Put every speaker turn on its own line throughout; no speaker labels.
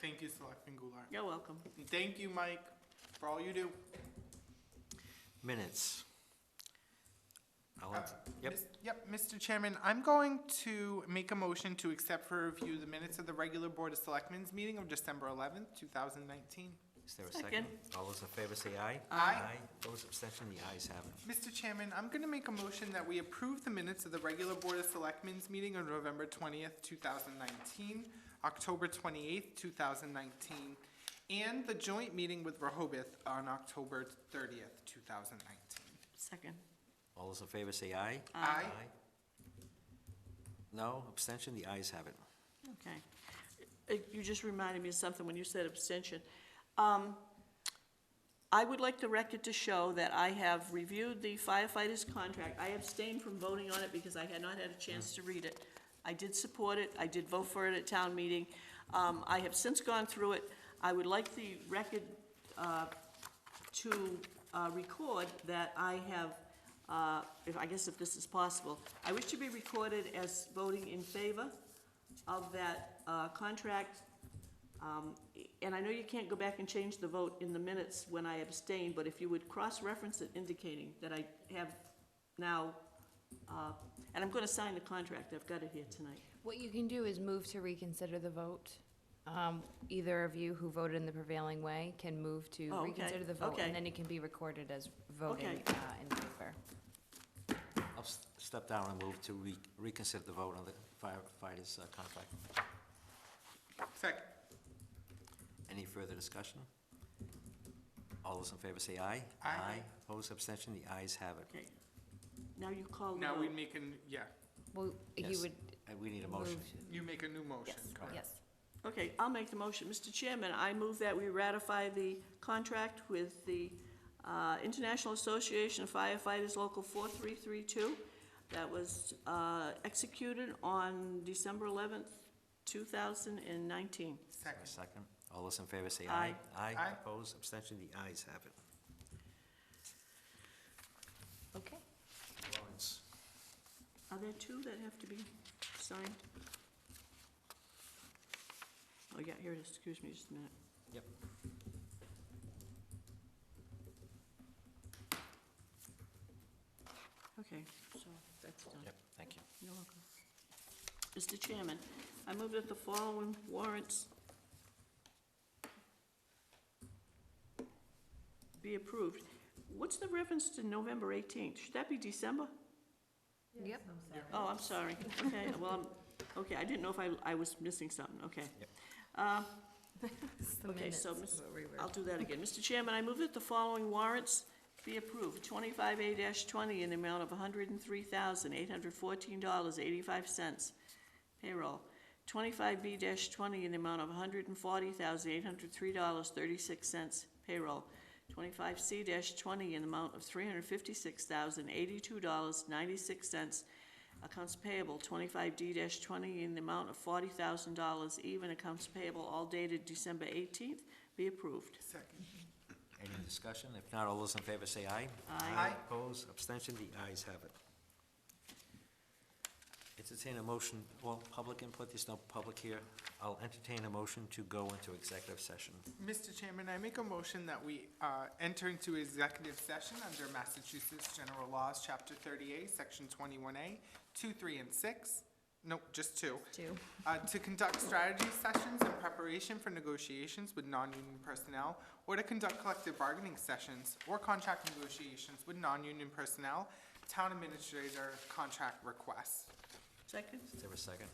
Thank you, Selectman Goulart.
You're welcome.
And Thank you, Mike, for all you do.
Minutes. I'll ent-
Uh,
Yep,
Mis- Yep, Mr. Chairman, I'm going to make a motion to accept for review the minutes of the regular Board of Selectmen's meeting of December eleventh, two thousand nineteen.
is there a
Second.
second? All those in favor say aye.
Aye.
Those abstention, the ayes have it.
Mr. Chairman, I'm gonna make a motion that we approve the minutes of the regular Board of Selectmen's meeting on November twentieth, two thousand nineteen, October twenty-eighth, two thousand nineteen, and the joint meeting with Rehoboth on October thirtieth, two thousand nineteen.
Second.
All those in favor say aye.
Aye.
No, abstention, the ayes have it.
Okay. Uh, You just reminded me of something when you said abstention. Um, I would like the record to show that I have reviewed the firefighter's contract. I abstained from voting on it because I had not had a chance to read it. I did support it, I did vote for it at town meeting. Um, I have since gone through it. I would like the record uh, to uh, record that I have, uh, if, I guess if this is possible, I wish to be recorded as voting in favor of that uh, contract. Um, And I know you can't go back and change the vote in the minutes when I abstain, but if you would cross-reference it indicating that I have now, uh, and I'm going to sign the contract, I've got it here tonight.
What you can do is move to reconsider the vote. Um, Either of you who voted in the prevailing way can move to
Oh, okay,
reconsider the vote,
okay.
and then it can be recorded as voting
Okay.
uh, in favor.
I'll s- step down and move to re- reconsider the vote on the firefighters' uh, contract.
Second.
Any further discussion? All those in favor say aye.
Aye.
Opposed, abstention, the ayes have it.
Okay. Now you call the
Now we
vote.
make an, yeah,
Well, you
Yes.
would
Uh, We need a
move,
motion.
you make a new motion,
Yes.
correct?
yes.
Okay, I'll make the motion. Mr. Chairman, I move that we ratify the contract with the uh, International Association of Firefighters Local 4332 that was uh, executed on December 11th, 2019.
A
Second.
second. All those in favor say aye.
Aye.
Aye.
Opposed, abstention, the ayes have it.
Okay.
Lawrence.
Are there two that have to be signed? Oh, yeah, here it is. Excuse me just a minute.
Yep.
Okay, so that's done.
Yep, thank you.
You're welcome. Mr. Chairman, I move that the following warrants be approved. What's the reference to November 18th? Should that be December?
Yep.
Oh, I'm sorry. Okay, well, I'm- okay, I didn't know if I, I was missing something, okay.
Yep.
Uh,
It's the
Okay, so
minutes
Miss-
where we were.
I'll do that again. Mr. Chairman, I move that the following warrants be approved. Twenty-five A twenty in the amount of hundred and three thousand, eight hundred fourteen dollars, eighty-five cents. Payroll. Twenty-five B twenty in the amount of hundred and forty thousand, eight hundred three dollars, thirty-six cents. Payroll. Twenty-five C twenty in the amount of three hundred fifty-six thousand, eighty-two dollars, ninety-six cents. Accounts payable, twenty-five D twenty in the amount of forty thousand dollars, even accounts payable, all dated December eighteenth, be approved.
Second.
Any discussion? If not, all those in favor say aye.
Aye.
Aye.
Opposed, abstention, the ayes have it. Entertain a motion, well, public input, there's no public here. I'll entertain a motion to go into executive session.
Mr. Chairman, I make a motion that we uh, enter into executive session under Massachusetts General Laws, Chapter 38, Section 21A, 2, 3, and 6, no, just 2,
Two.
uh, to conduct strategy sessions in preparation for negotiations with non-union personnel, or to conduct collective bargaining sessions or contract negotiations with non-union personnel, town administrator contract requests.
Second?
Is there a second?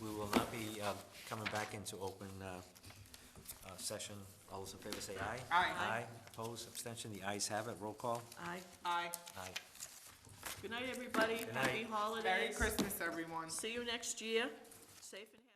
We will not be uh, coming back into open uh, uh, session. All those in favor say aye.
Aye.
Aye. Opposed, abstention, the ayes have it. Roll call.
Aye.
Aye.
Aye.
Good night, everybody.
Good
Happy
night.
holidays.
Merry Christmas, everyone.
See you next year. Safe and.